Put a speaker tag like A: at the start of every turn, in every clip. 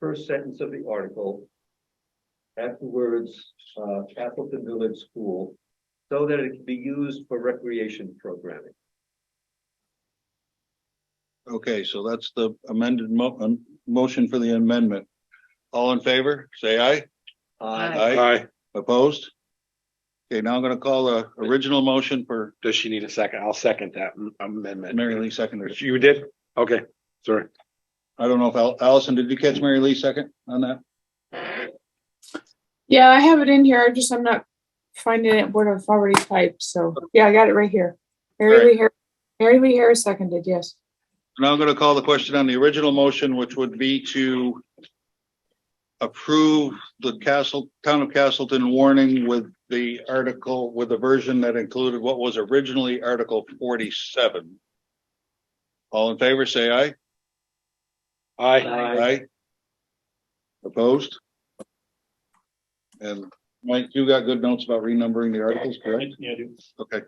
A: first sentence of the article. Afterwards, uh, Castleton Village School, so that it can be used for recreation programming.
B: Okay, so that's the amended mo- um, motion for the amendment. All in favor, say aye.
A: Uh,
C: Aye.
D: Aye.
B: Opposed? Okay, now I'm gonna call the original motion for
D: Does she need a second? I'll second that amendment.
B: Mary Lee seconded. it.
D: You did? Okay, sorry.
B: I don't know if Al- Allison, did you catch Mary Lee second on that?
C: Yeah, I have it in here. I just, I'm not finding it what I've already typed. So, yeah, I got it right here.
B: All
C: Mary
B: right.
C: Lee Harris, Mary Lee Harris seconded, yes.
B: Now I'm gonna call the question on the original motion, which would be to approve the Castle, Town of Castleton warning with the article, with the version that included what was originally Article forty-seven. All in favor, say aye.
D: Aye.
A: Aye.
B: Aye. Opposed? And Mike, you got good notes about renumbering the articles, correct?
D: Yeah, dude.
B: Okay.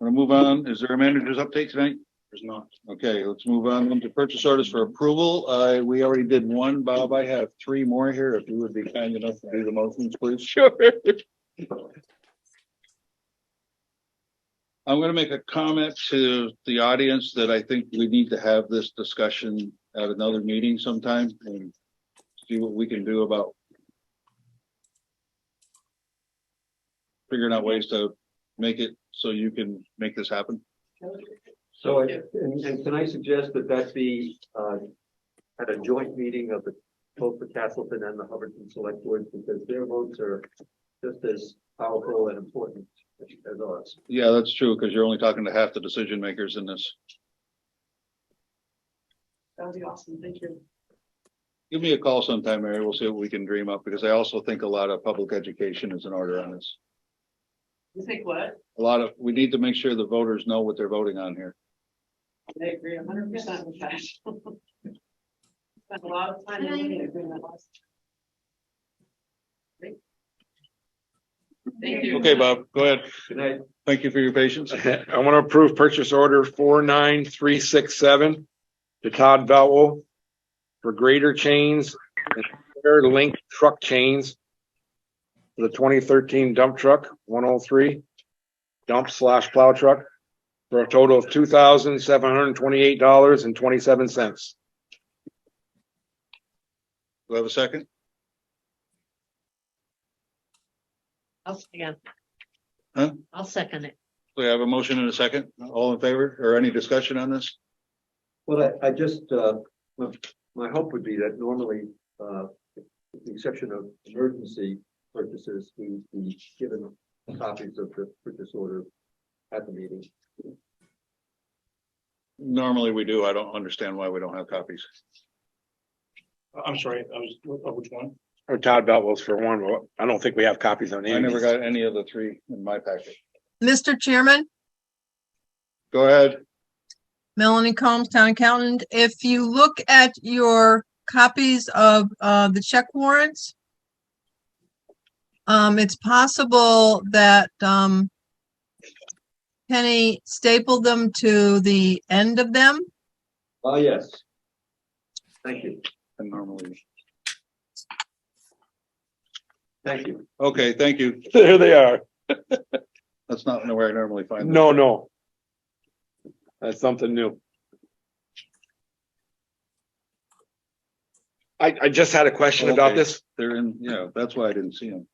B: Want to move on? Is there a manager's update tonight? There's not. Okay, let's move on then to purchase orders for approval. Uh, we already did one. Bob, I have three more here. If you would be kind enough to do the motions, please. Sure. I'm gonna make a comment to the audience that I think we need to have this discussion at another meeting sometime and see what we can do about figuring out ways to make it so you can make this happen.
A: So, I- and, and can I suggest that that be, uh, at a joint meeting of the, both the Castleton and the Hubbardton Select Board, because their votes are just as powerful and important as as ours.
B: Yeah, that's true, because you're only talking to half the decision makers in this.
C: That would be awesome. Thank you.
B: Give me a call sometime, Mary. We'll see what we can dream up, because I also think a lot of public education is in order on this.
C: You think what?
B: A lot of, we need to make sure the voters know what they're voting on here.
C: I agree a hundred percent with that. Spent a lot of time
E: looking
C: at doing that last.
E: Thank you.
B: Okay, Bob, go ahead.
A: Good night.
B: Thank you for your patience.
D: I want to approve purchase order four nine three six seven to Todd Vowell for greater chains and square link truck chains for the twenty thirteen dump truck, one oh three dump slash plow truck for a total of two thousand seven hundred and twenty-eight dollars and twenty-seven cents.
B: Do I have a second?
E: I'll second.
B: Huh?
E: I'll second it.
B: Do I have a motion and a second? All in favor or any discussion on this?
A: Well, I, I just, uh, my, my hope would be that normally, uh, with the exception of emergency purchases, we, we given copies of the purchase order at the meeting.
B: Normally we do. I don't understand why we don't have copies.
F: I'm sorry, I was, of which one?
D: Or Oh, Todd Vowell's for one. Well, I don't think we have copies on any.
B: I
D: of
B: never
D: these.
B: got any of the three in my packet.
G: Mr. Chairman,
B: Go ahead.
G: Melanie Combs, Town Accountant, if you look at your copies of uh, the check warrants, um, it's possible that um, Penny stapled them to the end of them.
A: Ah, yes. Thank you,
B: And normally,
A: thank you.
B: okay, thank you.
D: There they are.
B: That's not where I normally find. them.
D: No, no. That's something new. I, I just had a question about
B: Oh, Okay.
D: this.
B: They're in, yeah, that's why I didn't see them.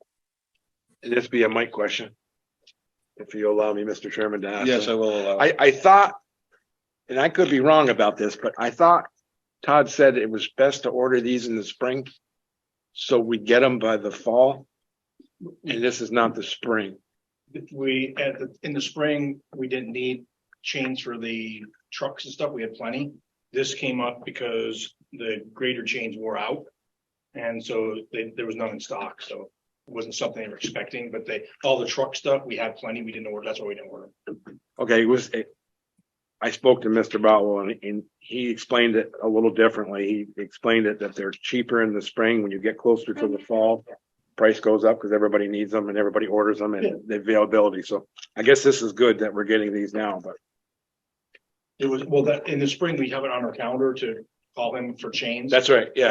D: This be a mic question. If you allow me, Mr. Chairman, to ask.
B: Yes, I
D: it.
B: will allow. it.
D: I, I thought, and I could be wrong about this, but I thought Todd said it was best to order these in the spring. So we get them by the fall. And this is not the spring.
F: We, at the, in the spring, we didn't need chains for the trucks and stuff. We had plenty. This came up because the greater chains wore out. And so they, there was none in stock, so it wasn't something they were expecting, but they, all the truck stuff, we had plenty. We didn't order, that's why we didn't order. them.
D: Okay, it was, it- I spoke to Mr. Bowell and, and he explained it a little differently. He explained it that they're cheaper in the spring. When you get closer to the fall, price goes up because everybody needs them and everybody orders them
F: Yeah.
D: and the availability. So I guess this is good that we're getting these now, but
F: It was, well, that, in the spring, we have it on our calendar to
H: call him for chains.
F: That's right, yeah.